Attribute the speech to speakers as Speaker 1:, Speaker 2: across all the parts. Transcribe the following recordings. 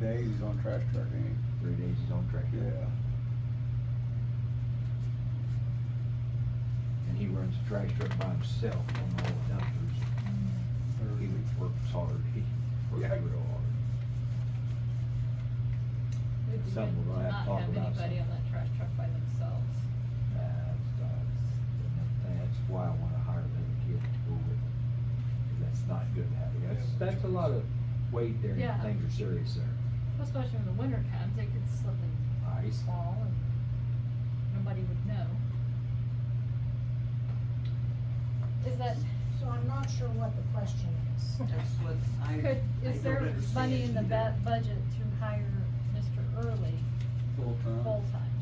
Speaker 1: days on trash truck, ain't
Speaker 2: Three days is on track.
Speaker 1: he? Yeah.
Speaker 2: And he runs the trash truck by himself on all the dumpsters. He works hard. He
Speaker 1: Mm-hmm. Yeah.
Speaker 2: works real hard.
Speaker 3: It'd be
Speaker 2: Something
Speaker 3: good
Speaker 2: we're
Speaker 3: to
Speaker 2: gonna have to
Speaker 3: not
Speaker 2: talk
Speaker 3: have
Speaker 2: about
Speaker 3: anybody
Speaker 2: some-
Speaker 3: on that trash truck by themselves.
Speaker 2: That's, that's, that's why I wanna hire another kid to go with. 'Cause That's not good to have. That's, that's a lot of weight there.
Speaker 3: Yeah.
Speaker 2: Things are serious there.
Speaker 3: Especially when the winter comes, they could slip and
Speaker 2: Ice.
Speaker 3: fall and nobody would know. Is that,
Speaker 4: So I'm not sure what the question is.
Speaker 5: That's what I.
Speaker 3: could,
Speaker 5: I
Speaker 3: is
Speaker 5: don't
Speaker 3: there
Speaker 5: understand
Speaker 3: money in the
Speaker 5: either.
Speaker 3: ba- budget to hire Mr. Early
Speaker 1: Full
Speaker 5: Uh-huh.
Speaker 1: time.
Speaker 3: full-time?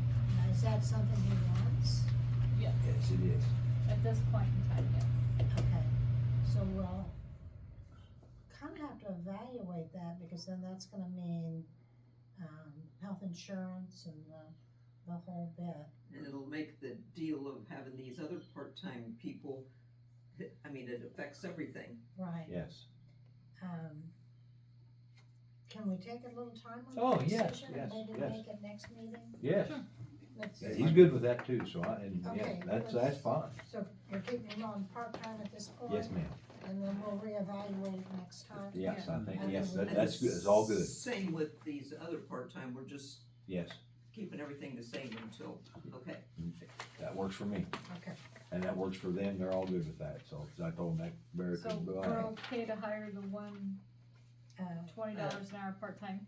Speaker 4: Now, Is that something he wants?
Speaker 3: Yes,
Speaker 2: Yes, it is.
Speaker 3: at this point in time, yes.
Speaker 4: Okay, so we'll kind of have to evaluate that because then that's gonna mean, um, health insurance and the, the whole bit.
Speaker 5: And it'll make the deal of having these other part-time people, I mean, it affects everything.
Speaker 4: Right.
Speaker 2: Yes.
Speaker 4: Um, can we take a little time
Speaker 2: Oh,
Speaker 4: on that
Speaker 2: yes,
Speaker 4: decision?
Speaker 2: yes,
Speaker 4: Maybe
Speaker 2: yes.
Speaker 4: make it next meeting?
Speaker 2: Yes.
Speaker 4: Let's-
Speaker 2: Yeah, He's good with that too, so I, and yeah,
Speaker 4: Okay,
Speaker 2: that's,
Speaker 4: let's-
Speaker 2: that's fine.
Speaker 4: So we're keeping him on part-time at this point?
Speaker 2: Yes, ma'am.
Speaker 4: And then we'll reevaluate next time?
Speaker 2: Yes, I think,
Speaker 4: Yeah.
Speaker 2: yes, that,
Speaker 5: And
Speaker 2: that's good. It's all good.
Speaker 5: Same with these other part-time, we're just
Speaker 2: Yes.
Speaker 5: keeping everything the same until, okay.
Speaker 2: That works for me.
Speaker 4: Okay.
Speaker 2: And that works for them. They're all good with that. So, 'cause I told them that Barry
Speaker 3: So
Speaker 2: could go
Speaker 3: we're
Speaker 2: out.
Speaker 3: okay to hire the one
Speaker 4: Uh,
Speaker 3: twenty dollars an hour part-time?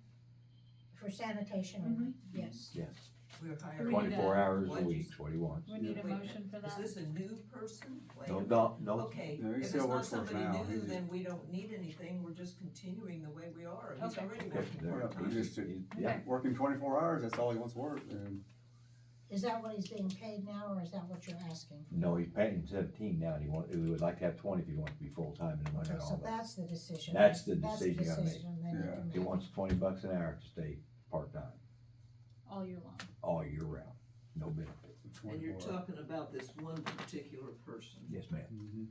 Speaker 4: for sanitation only,
Speaker 3: Mm-hmm.
Speaker 4: yes.
Speaker 2: Yes,
Speaker 5: We're
Speaker 3: We need
Speaker 2: twenty-four
Speaker 3: a-
Speaker 2: hours a
Speaker 5: What'd you
Speaker 2: week, is what he wants.
Speaker 3: We need a
Speaker 5: Wait a
Speaker 3: motion for
Speaker 5: Is
Speaker 3: that?
Speaker 5: this a new person? Wait.
Speaker 2: No, no, no,
Speaker 5: Okay,
Speaker 1: No, he
Speaker 5: if it's
Speaker 1: still
Speaker 5: not
Speaker 1: works for us
Speaker 5: somebody
Speaker 1: now.
Speaker 5: new,
Speaker 1: He-
Speaker 5: then we don't need anything, we're just continuing the way we are, he's
Speaker 3: Okay.
Speaker 5: already
Speaker 2: Okay,
Speaker 5: working
Speaker 2: there.
Speaker 1: Yeah, he
Speaker 5: part-time.
Speaker 1: just-
Speaker 2: He- yeah,
Speaker 1: Working twenty-four hours, that's all he wants to work, and
Speaker 4: Is that what he's being paid now, or is that what you're asking?
Speaker 2: no, he's paying seventeen now, and he want, he would like to have twenty if he wants to be full-time and money
Speaker 4: Okay,
Speaker 2: and all
Speaker 4: so
Speaker 2: that.
Speaker 4: that's the decision.
Speaker 2: That's the
Speaker 4: That's the
Speaker 2: decision I made.
Speaker 4: decision they need to
Speaker 1: Yeah.
Speaker 4: make.
Speaker 2: He wants twenty bucks an hour to stay part-time,
Speaker 3: All year long.
Speaker 2: all year round, no benefit.
Speaker 5: And
Speaker 1: twenty-four
Speaker 5: you're
Speaker 1: hours.
Speaker 5: talking about this one particular person.
Speaker 2: Yes, ma'am.
Speaker 1: Mhm.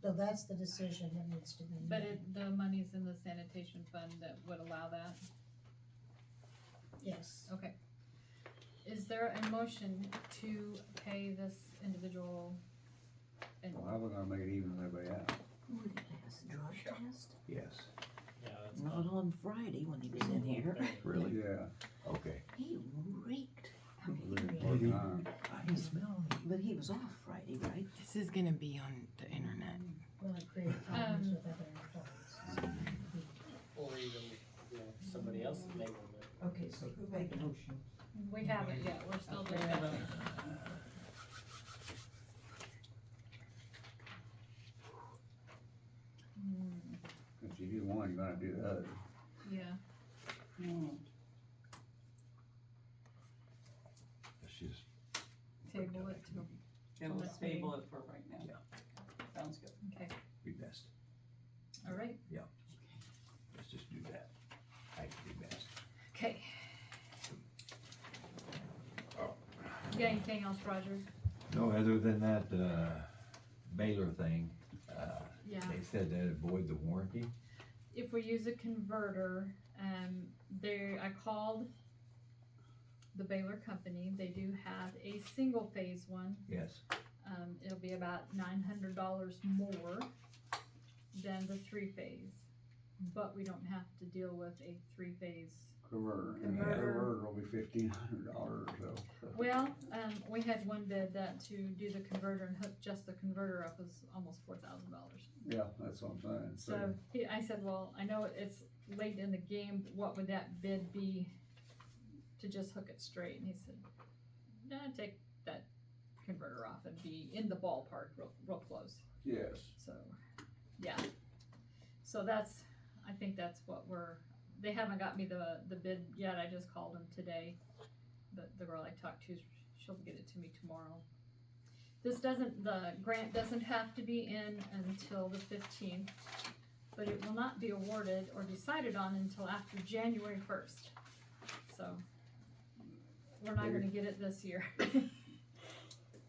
Speaker 4: So that's the decision that needs to be made.
Speaker 3: But it, the money's in the sanitation fund that would allow that?
Speaker 4: Yes,
Speaker 3: Okay. Is there a motion to pay this individual? And
Speaker 1: Well, how we gonna make it even with everybody else?
Speaker 5: Drug test?
Speaker 2: Yes,
Speaker 6: Yeah, that's
Speaker 5: Not on Friday when he was in here,
Speaker 2: really?
Speaker 1: Yeah.
Speaker 2: Okay.
Speaker 5: he reeked. I
Speaker 1: working
Speaker 5: mean,
Speaker 1: part-time.
Speaker 2: I can smell him.
Speaker 5: but he was off Friday, right?
Speaker 7: This is gonna be on the internet.
Speaker 4: will it create problems
Speaker 3: Um,
Speaker 4: with other employees?
Speaker 2: Mm-hmm.
Speaker 6: Or even, you know, somebody else's name on it.
Speaker 5: Okay, so who made the motion?
Speaker 3: we haven't yet, we're still discussing. Hmm,
Speaker 1: If you do one, you're gonna do the other.
Speaker 3: Yeah,
Speaker 8: Hmm.
Speaker 2: It's just,
Speaker 3: table it to,
Speaker 8: Yeah,
Speaker 3: Let's
Speaker 8: let's table
Speaker 3: see.
Speaker 8: it for right now. Sounds good.
Speaker 3: okay,
Speaker 2: be best,
Speaker 3: all right,
Speaker 2: let's just do that. I can be best.
Speaker 3: okay. You got anything else, Roger?
Speaker 2: No, other than that, uh, Baylor thing, uh,
Speaker 3: Yeah.
Speaker 2: They said that avoid the warranty.
Speaker 3: if we use a converter, um, there, I called the Baylor company, they do have a single phase one,
Speaker 2: Yes.
Speaker 3: um, it'll be about nine hundred dollars more than the three phase. But we don't have to deal with a three phase
Speaker 1: Converter, and the
Speaker 3: Converter.
Speaker 1: converter will be fifteen hundred dollars, so.
Speaker 3: Well, um, we had one bid that to do the converter and hook just the converter up was almost four thousand dollars.
Speaker 1: Yeah, that's what I'm saying,
Speaker 3: So
Speaker 1: so,
Speaker 3: he, I said, well, I know it's late in the game, but what would that bid be to just hook it straight? And he said, nah, take that converter off and be in the ballpark real, real close.
Speaker 1: yes.
Speaker 3: So, yeah. So that's, I think that's what we're, they haven't got me the, the bid yet, I just called them today. But the girl I talked to, she'll get it to me tomorrow. This doesn't, the grant doesn't have to be in until the fifteenth, but it will not be awarded or decided on until after January first. So, we're not gonna get it this year.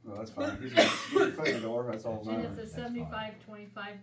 Speaker 1: Well, that's fine, he's gonna, he's gonna the door, that's all that
Speaker 3: And
Speaker 1: matters.
Speaker 3: it's a
Speaker 2: That's fine.
Speaker 3: seventy-five, twenty-five